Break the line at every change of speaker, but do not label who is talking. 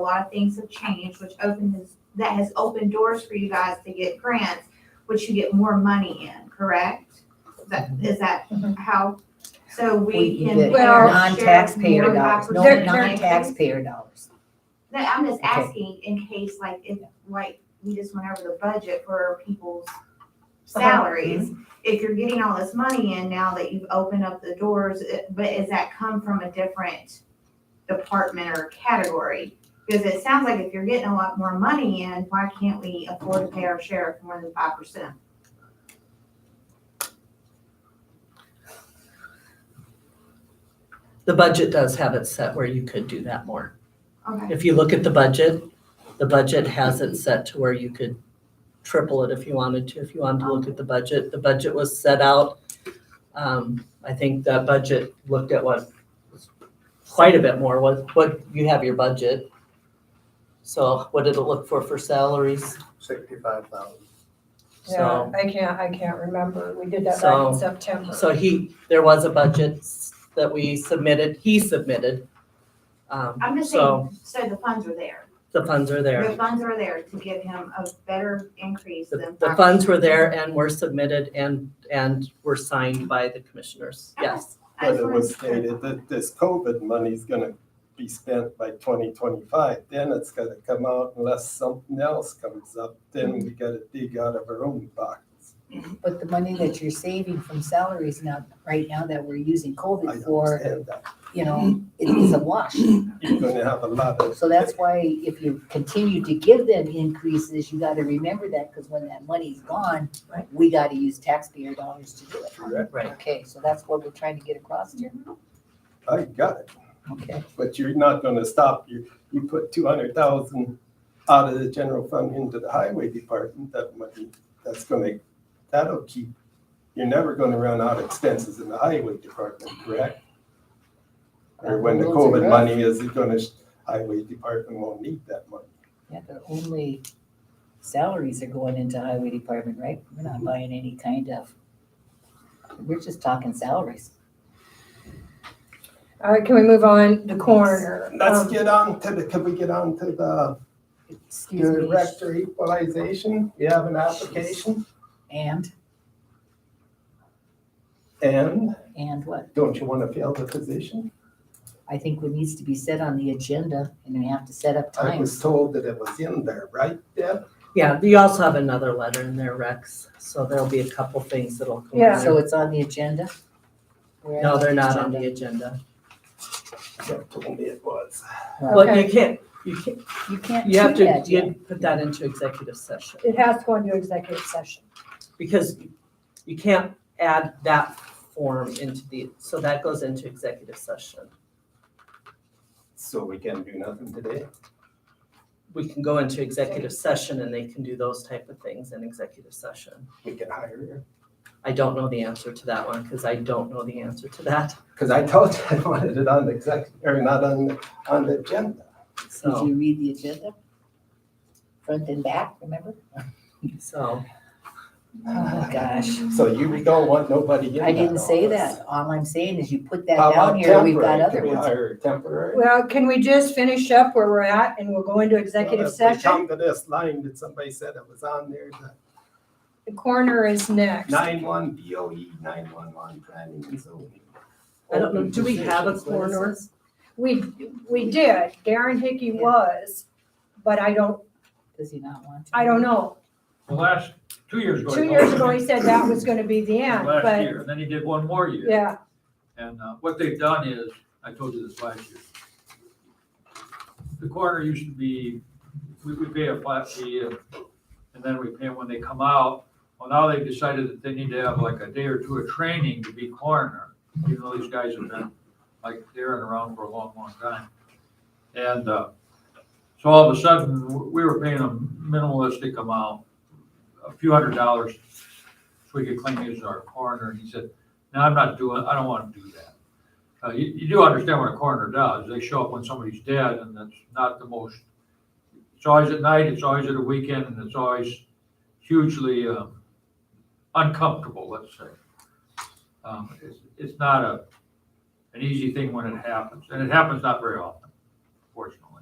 lot of things have changed, which opens, that has opened doors for you guys to get grants, which you get more money in, correct? Is that, is that
Mhm.
how, so we
Mm-hmm. We
can.
can get
better share
non-taxpayer
more
dollars, no,
opportunities?
non-taxpayer dollars.
No, I'm just
Okay.
asking in case, like, if, like, we just went over the budget for people's
Uh-huh.
salaries.
Mm-hmm.
If you're getting all this money in now that you've opened up the doors, it- but is that come from a different department or category? Because it sounds like if you're getting a lot more money in, why can't we afford to pay our sheriff more than five percent?
The budget does have it set where you could do that more.
Okay,
If you look at the budget, the budget has it set to where you could triple it if you wanted to, if you wanted to look at the budget. The budget was set out, um, I think that budget looked at what, quite a bit more, what, what, you have your budget. So what did it look for for salaries?
sixty-five thousand.
Yeah,
So,
I can't, I can't remember. We did that back in
So-
September.
so he, there was a budget s- that we submitted, he submitted. Um,
I'm just
so
saying, so the funds are there.
the funds are there.
The funds are there to give him a better increase
The,
than.
the
5%.
funds were there and were submitted and, and were signed by the commissioners,
Okay.
yes.
I
But
just
it
wanted
was
to clarify.
stated that this COVID money's gonna be spent by twenty twenty-five, then it's gonna come out unless something else comes up, then we gotta dig out of our own pockets.
But the money that you're saving from salaries now, right now that we're using
I
COVID for,
understand that,
you know, it is a wash.
uh, you're gonna have a lot of.
So that's why if you continue to give them increases, you gotta remember that, because when that money's gone,
Right.
we gotta use taxpayer dollars to do it.
Correct.
Right.
Okay, so that's what we're trying to get across here.
I got it,
Okay.
but you're not gonna stop, you, you put two hundred thousand out of the general fund into the highway department, that money, that's gonna, that'll keep, you're never gonna run out of expenses in the highway department, correct? Or when the
Roads are
COVID
rough.
money is gonna, highway department won't need that money.
Yeah, the only salaries are going into highway department, right? We're not
Mm-hmm.
buying any kind of, we're just talking salaries.
All right, can we move on? The coroner.
Let's
Um,
get on to the, can we get on to the
Excuse me.
director equalization? We have an application
And,
and
and what?
don't you wanna fill the position?
I think what needs to be set on the agenda and we have to set up
I was
times.
told that it was in there, right, Deb?
Yeah, you also have another letter in there, Rex, so there'll be a couple things that'll come
Yeah.
in
So
there.
it's on the agenda? We're
No,
on the
they're not on
agenda.
the agenda.
Deb told me it was.
Well,
Okay.
you can't, you can't,
You can't
you have
do
to,
that yet.
you put that into executive session,
It has to go into executive session.
because you can't add that form into the, so that goes into executive session.
So we can do nothing today.
We can go into executive session and they can do those type of things in executive session.
We can hire her.
I don't know the answer to that one, because I don't know the answer to that,
Cause I told you I wanted it on the exec, or not on, on the agenda.
so.
Did you read the agenda? Front and back, remember?
So,
Oh, gosh.
So you don't want nobody in that
I didn't say
office.
that. All I'm saying is you put that
How
down
about
here, we've
temporary?
got
Can
other
we
ones.
hire temporary?
Well, can we just finish up where we're at and we'll go into executive
Well, if we
session?
Come to this line that somebody said it was on there, the
The coroner is next.
nine-one BOE, nine-one-one planning and zoning.
I don't know, do we have a
Open positions, what is it?
coroner?
We, we did. Darren Hickey was, but I don't,
Does he not want to?
I don't know.
The last, two years ago.
Two
he
years
told
ago,
me,
he said that was gonna be the end,
Last
but,
year, and then he did one more year.
yeah.
And uh, what they've done is, I told you this last year. The coroner used to be, we would pay a flat fee and, and then we pay when they come out. Well, now they've decided that they need to have like a day or two of training to be coroner, even though these guys have been like they're in around for a long, long time. And uh, so all of a sudden, w- we were paying a minimalistic amount, a few hundred dollars, so we could claim he was our coroner. And he said, no, I'm not doing, I don't want to do that. Uh, you, you do understand what a coroner does. They show up when somebody's dead and that's not the most, it's always at night, it's always at a weekend, and it's always hugely, um, uncomfortable, let's say. Um, it's, it's not a, an easy thing when it happens, and it happens not very often, fortunately.